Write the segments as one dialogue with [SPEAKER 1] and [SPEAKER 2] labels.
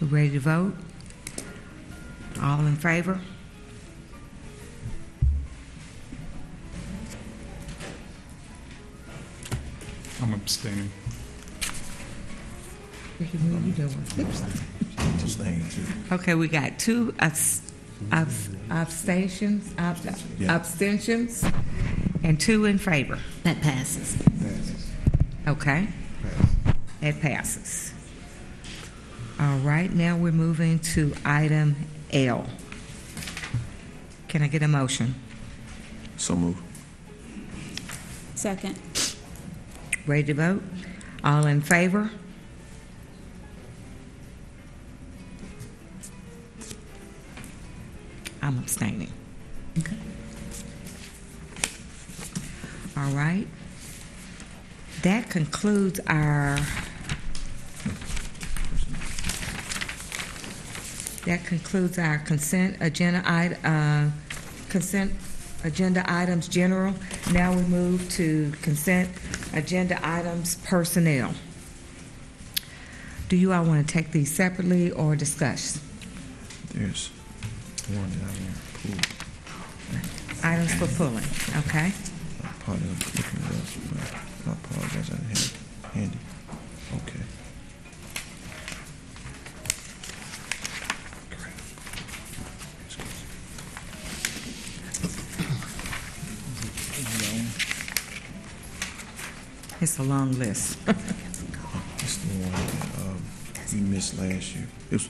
[SPEAKER 1] We're ready to vote? All in favor?
[SPEAKER 2] I'm abstaining.
[SPEAKER 1] Ricky, what are you doing?
[SPEAKER 3] Just things.
[SPEAKER 1] Okay, we got two abs- abs- abstentions, ab-
[SPEAKER 3] Yeah.
[SPEAKER 1] abstentions, and two in favor.
[SPEAKER 4] That passes.
[SPEAKER 1] Okay? It passes. All right, now we're moving to item L. Can I get a motion?
[SPEAKER 3] So move.
[SPEAKER 5] Second.
[SPEAKER 1] Ready to vote? All in favor? I'm abstaining. All right. That concludes our, that concludes our consent agenda, i- uh, consent agenda items general. Now we move to consent agenda items personnel. Do you all want to take these separately or discuss?
[SPEAKER 3] There's one down there.
[SPEAKER 1] Items for pulling, okay?
[SPEAKER 3] Pool. I apologize. I'm looking it up, but I apologize. I didn't have it handy. Okay.
[SPEAKER 1] It's a long list.
[SPEAKER 3] It's the one that um, you missed last year. It's,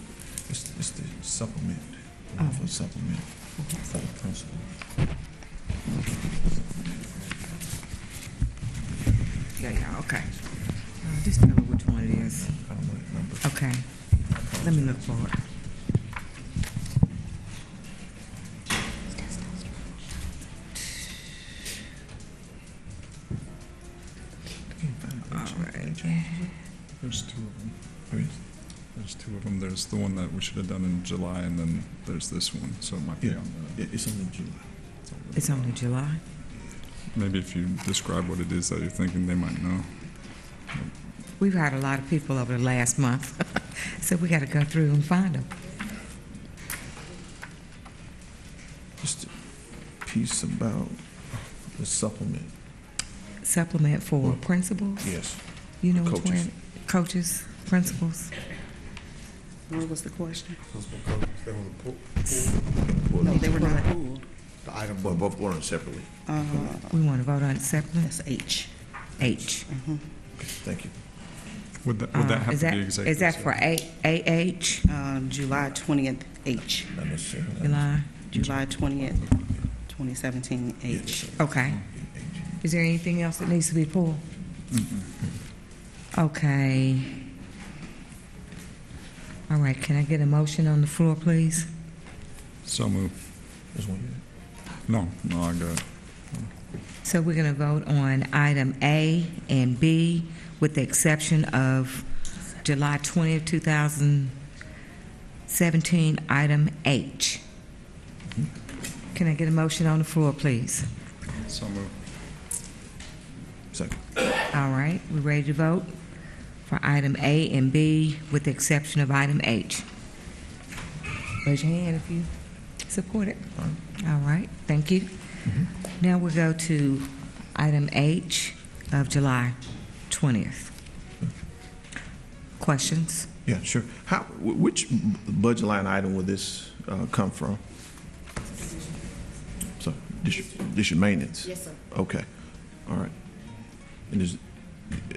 [SPEAKER 3] it's, it's the supplement.
[SPEAKER 1] Oh.
[SPEAKER 3] For supplement for the principal.
[SPEAKER 1] Yeah, yeah, okay. Uh, Just tell me which one it is.
[SPEAKER 3] I don't know that number.
[SPEAKER 1] Okay, let me look for it. All right.
[SPEAKER 2] There's two of them.
[SPEAKER 3] Where is it?
[SPEAKER 2] There's two of them. There's the one that we should have done in July, and then there's this one, so it might be
[SPEAKER 3] Yeah.
[SPEAKER 2] on the...
[SPEAKER 3] Yeah, it's on the July.
[SPEAKER 1] It's only July.
[SPEAKER 2] Maybe if you describe what it is that you're thinking, they might know.
[SPEAKER 1] We've had a lot of people over the last month, so we got to go through and find them.
[SPEAKER 3] It's the piece about the supplement.
[SPEAKER 1] Supplement for principals?
[SPEAKER 3] Yes.
[SPEAKER 1] You know which
[SPEAKER 3] Coaches.
[SPEAKER 1] one? Coaches, principals?
[SPEAKER 5] What was the question?
[SPEAKER 6] They were pulled,
[SPEAKER 5] No, they were not pulled.
[SPEAKER 6] the item
[SPEAKER 3] Well, both going separately.
[SPEAKER 1] We want to vote on supplement?
[SPEAKER 5] That's H.
[SPEAKER 1] H.
[SPEAKER 3] Thank you.
[SPEAKER 2] Would that, would that
[SPEAKER 1] Uh,
[SPEAKER 2] have
[SPEAKER 1] is
[SPEAKER 2] to be executive?
[SPEAKER 1] Is that for
[SPEAKER 2] session?
[SPEAKER 1] A- AH,
[SPEAKER 5] Uh, July 20th, H.
[SPEAKER 3] Not necessarily.
[SPEAKER 1] July?
[SPEAKER 5] July 20th, 2017, H.
[SPEAKER 1] Okay. Is there anything else that needs to be pulled? Okay. All right, can I get a motion on the floor, please?
[SPEAKER 2] So move.
[SPEAKER 3] There's one.
[SPEAKER 2] No, no, I got it.
[SPEAKER 1] So we're going to vote on item A and B with the exception of July 20th, 2017, item H. Can I get a motion on the floor, please?
[SPEAKER 2] So move.
[SPEAKER 3] Second.
[SPEAKER 1] All right, we ready to vote for item A and B with the exception of item H? Raise your hand if you support it. All right, thank you. Now we go to item H of July 20th. Questions?
[SPEAKER 3] Yeah, sure. How, wh- which b- budget line item will this uh, come from? So, district, district maintenance? Yes, sir. Okay, all right. And is,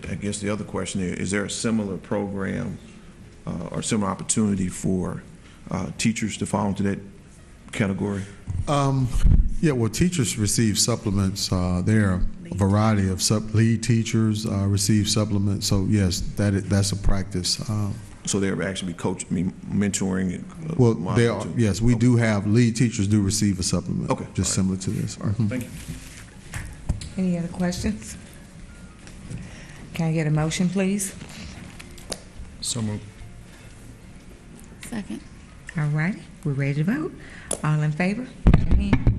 [SPEAKER 3] I guess the other question is, is there a similar program uh, or similar opportunity for uh, teachers to fall into that category?
[SPEAKER 6] Um, yeah, well, teachers receive supplements. Uh, there are a variety of sub, lead teachers uh, receive supplements. So yes, that is, that's a practice. Uh,
[SPEAKER 3] So they're actually coach, I mean, mentoring? uh,
[SPEAKER 6] well, they are,
[SPEAKER 3] opportunity?
[SPEAKER 6] yes, we do have lead teachers do receive a supplement.
[SPEAKER 3] Oh. Okay,
[SPEAKER 6] just
[SPEAKER 3] all
[SPEAKER 6] similar to this.
[SPEAKER 3] All right,
[SPEAKER 6] Mhm.
[SPEAKER 3] thank you.
[SPEAKER 1] Any other questions? Can I get a motion, please?
[SPEAKER 2] So move.
[SPEAKER 4] Second.
[SPEAKER 1] All righty, we're ready to vote. All in favor? Raise your hand.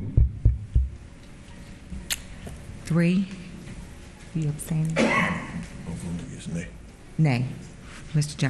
[SPEAKER 1] Three. You abstaining?
[SPEAKER 3] Yes, nay.
[SPEAKER 1] Nay. Mr. Johnson?